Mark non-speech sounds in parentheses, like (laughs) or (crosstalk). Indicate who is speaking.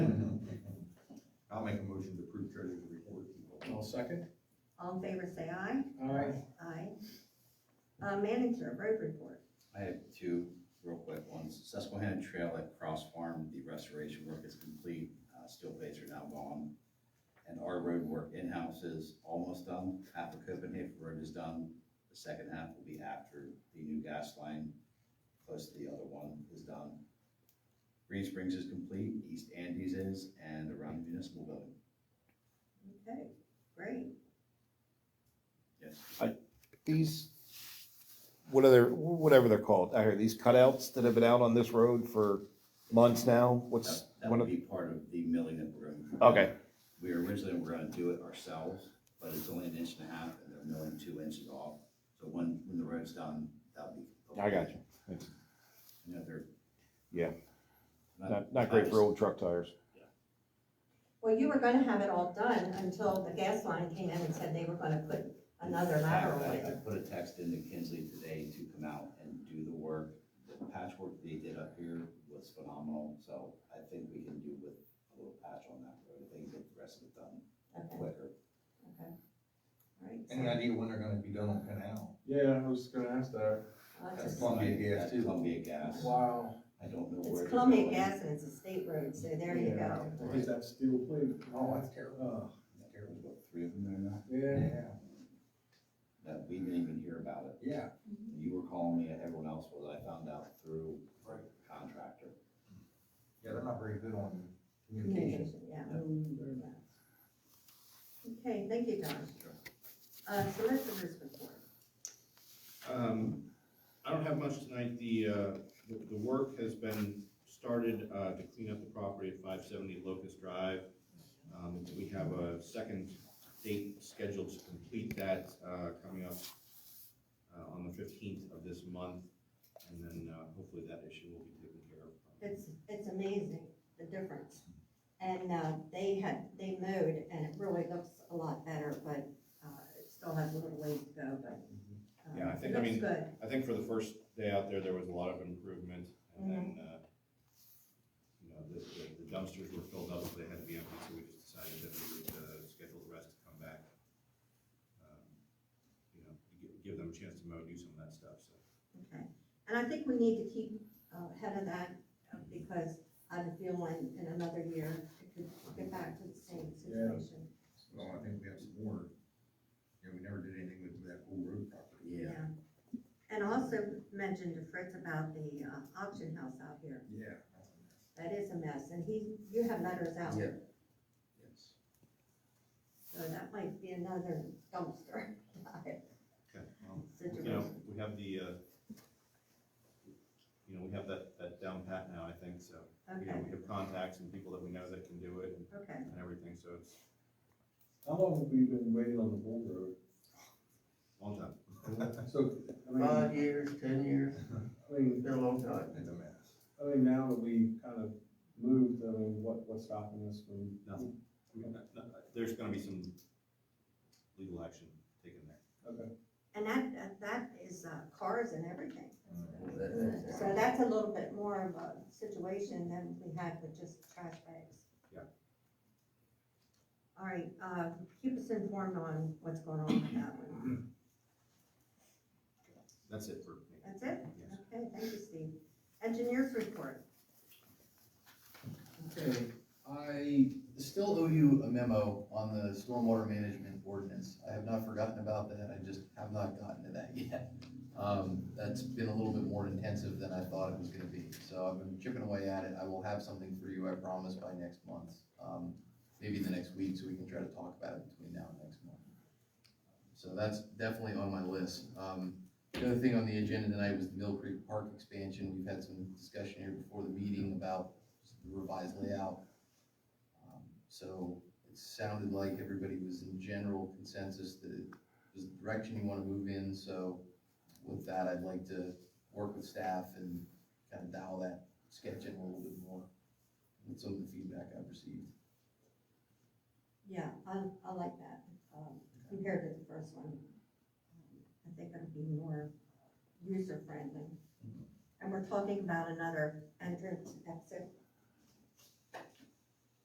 Speaker 1: second.
Speaker 2: All in favor, say aye.
Speaker 1: Aye.
Speaker 2: Aye. Uh, manager, road report.
Speaker 3: I have two real quick ones. Susquehanna Trail at Cross Farm, the restoration work is complete, uh, steel plates are now gone. And our road work in-house is almost done, half of Copenhagen Road is done. The second half will be after the new gas line, close to the other one, is done. Green Springs is complete, East Andes is, and around the municipal building,
Speaker 2: Okay, great.
Speaker 3: yes.
Speaker 4: these, what are they, whatever they're called, I hear these cutouts that have been out on this road for months now, what's,
Speaker 3: That that
Speaker 4: one
Speaker 3: would
Speaker 4: of,
Speaker 3: be part of the milling that we're going to do.
Speaker 4: okay,
Speaker 3: We originally were gonna do it ourselves, but it's only an inch and a half, and they're milling two inches off. So when, when the road's done, that'll be.
Speaker 4: I got you.
Speaker 3: You know, they're.
Speaker 4: Yeah. Not, not great for old truck tires.
Speaker 2: Well, you were gonna have it all done until the gas line came in and said they were gonna put another
Speaker 3: In fact,
Speaker 2: lateral
Speaker 3: I- I
Speaker 2: in.
Speaker 3: put a text into Kinsley today to come out and do the work. The patchwork they did up here was phenomenal, so I think we can do with a little patch on that road. If they can get the rest of it done
Speaker 2: Okay,
Speaker 3: quicker.
Speaker 2: okay. All right,
Speaker 5: Any
Speaker 2: so, uh,
Speaker 5: idea when they're gonna be done on Canal?
Speaker 1: Yeah, I was gonna ask that.
Speaker 2: well,
Speaker 5: That's
Speaker 2: it's a-
Speaker 5: Columbia Gas,
Speaker 3: That's
Speaker 5: too.
Speaker 3: Columbia Gas.
Speaker 1: Wow.
Speaker 3: I don't know where.
Speaker 2: It's
Speaker 3: they're
Speaker 2: Columbia
Speaker 3: going.
Speaker 2: Gas and it's a state road, so there you
Speaker 1: Yeah,
Speaker 2: go.
Speaker 1: I think that steel plate.
Speaker 5: Oh, that's terrible.
Speaker 1: Uh,
Speaker 5: That's
Speaker 3: There's
Speaker 5: terrible.
Speaker 3: what, three of them there now?
Speaker 1: Yeah.
Speaker 5: Yeah,
Speaker 3: That we didn't even hear about it.
Speaker 5: yeah.
Speaker 3: You were calling me, everyone else was, I found out through
Speaker 5: Right.
Speaker 3: contractor.
Speaker 5: Yeah, they're not very good on communication.
Speaker 2: Communication, yeah.
Speaker 1: Um, there.
Speaker 2: Okay, thank you, Don. Uh, solicitors report.
Speaker 6: Um, I don't have much tonight. The, uh, the, the work has been started, uh, to clean up the property at five seventy Locust Drive. Um, we have a second date scheduled to complete that, uh, coming up, uh, on the fifteenth of this month. And then, uh, hopefully that issue will be taken care of.
Speaker 2: It's, it's amazing, the difference. And, uh, they had, they mowed and it really looks a lot better, but, uh, it still has a little ways to go, but. um,
Speaker 6: Mm-hmm. Yeah, I think-
Speaker 2: it
Speaker 6: I mean-
Speaker 2: Looks good.
Speaker 6: I think for the first day out there, there was a lot of improvement, and then,
Speaker 2: mm-hmm.
Speaker 6: uh, you know, the, the- the dumpsters were filled up, so they had to be empty, so we just decided that we would, uh, schedule the rest to come back. um, You know, give, give them a chance to mow, do some of that stuff, so.
Speaker 2: Okay, and I think we need to keep uh, ahead of that, uh, because I have a feeling in another year, it could get back to the same situation.
Speaker 5: Well, I think we have some more, you know, we never did anything with that whole road property.
Speaker 3: Yeah,
Speaker 2: And also mentioned to Fritz about the uh, auction house out here,
Speaker 5: Yeah.
Speaker 2: that is a mess, and he, you have letters out,
Speaker 3: Yeah. yes.
Speaker 2: so that might be another dumpster dive (laughs)
Speaker 6: Okay, well, you know,
Speaker 2: situation.
Speaker 6: we have the, uh, you know, we have that, that down pat now, I think, so, you know,
Speaker 2: Okay,
Speaker 6: we have contacts and people that we know that can do it and-
Speaker 2: okay,
Speaker 6: and everything, so it's
Speaker 1: How long have we been waiting on the bull road?
Speaker 6: a long time.
Speaker 1: So, I mean, I
Speaker 7: Five years, ten years,
Speaker 1: mean,
Speaker 7: it's been a long time.
Speaker 5: It's a mess.
Speaker 1: I mean, now that we kind of moved, I mean, what, what's stopping us from?
Speaker 6: Nothing. I mean, not- not- There's gonna be some legal action taken there.
Speaker 1: Okay.
Speaker 2: and that, that- that is uh, cars and everything.
Speaker 3: Well, that- that's-
Speaker 2: So that's a little bit more of a situation than we had with just trash bags.
Speaker 6: Yeah.
Speaker 2: All right, uh, keep us informed on what's going on with that
Speaker 6: Mm-hmm.
Speaker 2: one.
Speaker 6: That's it for me.
Speaker 2: That's it?
Speaker 6: Yes.
Speaker 2: Okay, thank you, Steve. Engineers report.
Speaker 8: Okay, I still owe you a memo on the stormwater management ordinance. I have not forgotten about that, I just have not gotten to that (laughs) yet. Um, that's been a little bit more intensive than I thought it was gonna be, so I've been chipping away at it. I will have something for you, I promise, by next month. Um, maybe in the next week, so we can try to talk about it between now and next month. So that's definitely on my list. Um, the other thing on the agenda tonight was the Mill Creek Park expansion. We've had some discussion here before the meeting about the revised layout. Um, So it sounded like everybody was in general consensus that it was the direction you want to move in, so with that, I'd like to work with staff and kind of dial that sketch in a little bit more with some of the feedback I've received.
Speaker 2: Yeah, I, I like that, um, compared to the first one. I think it'll be more user friendly. And we're talking about another entrance exit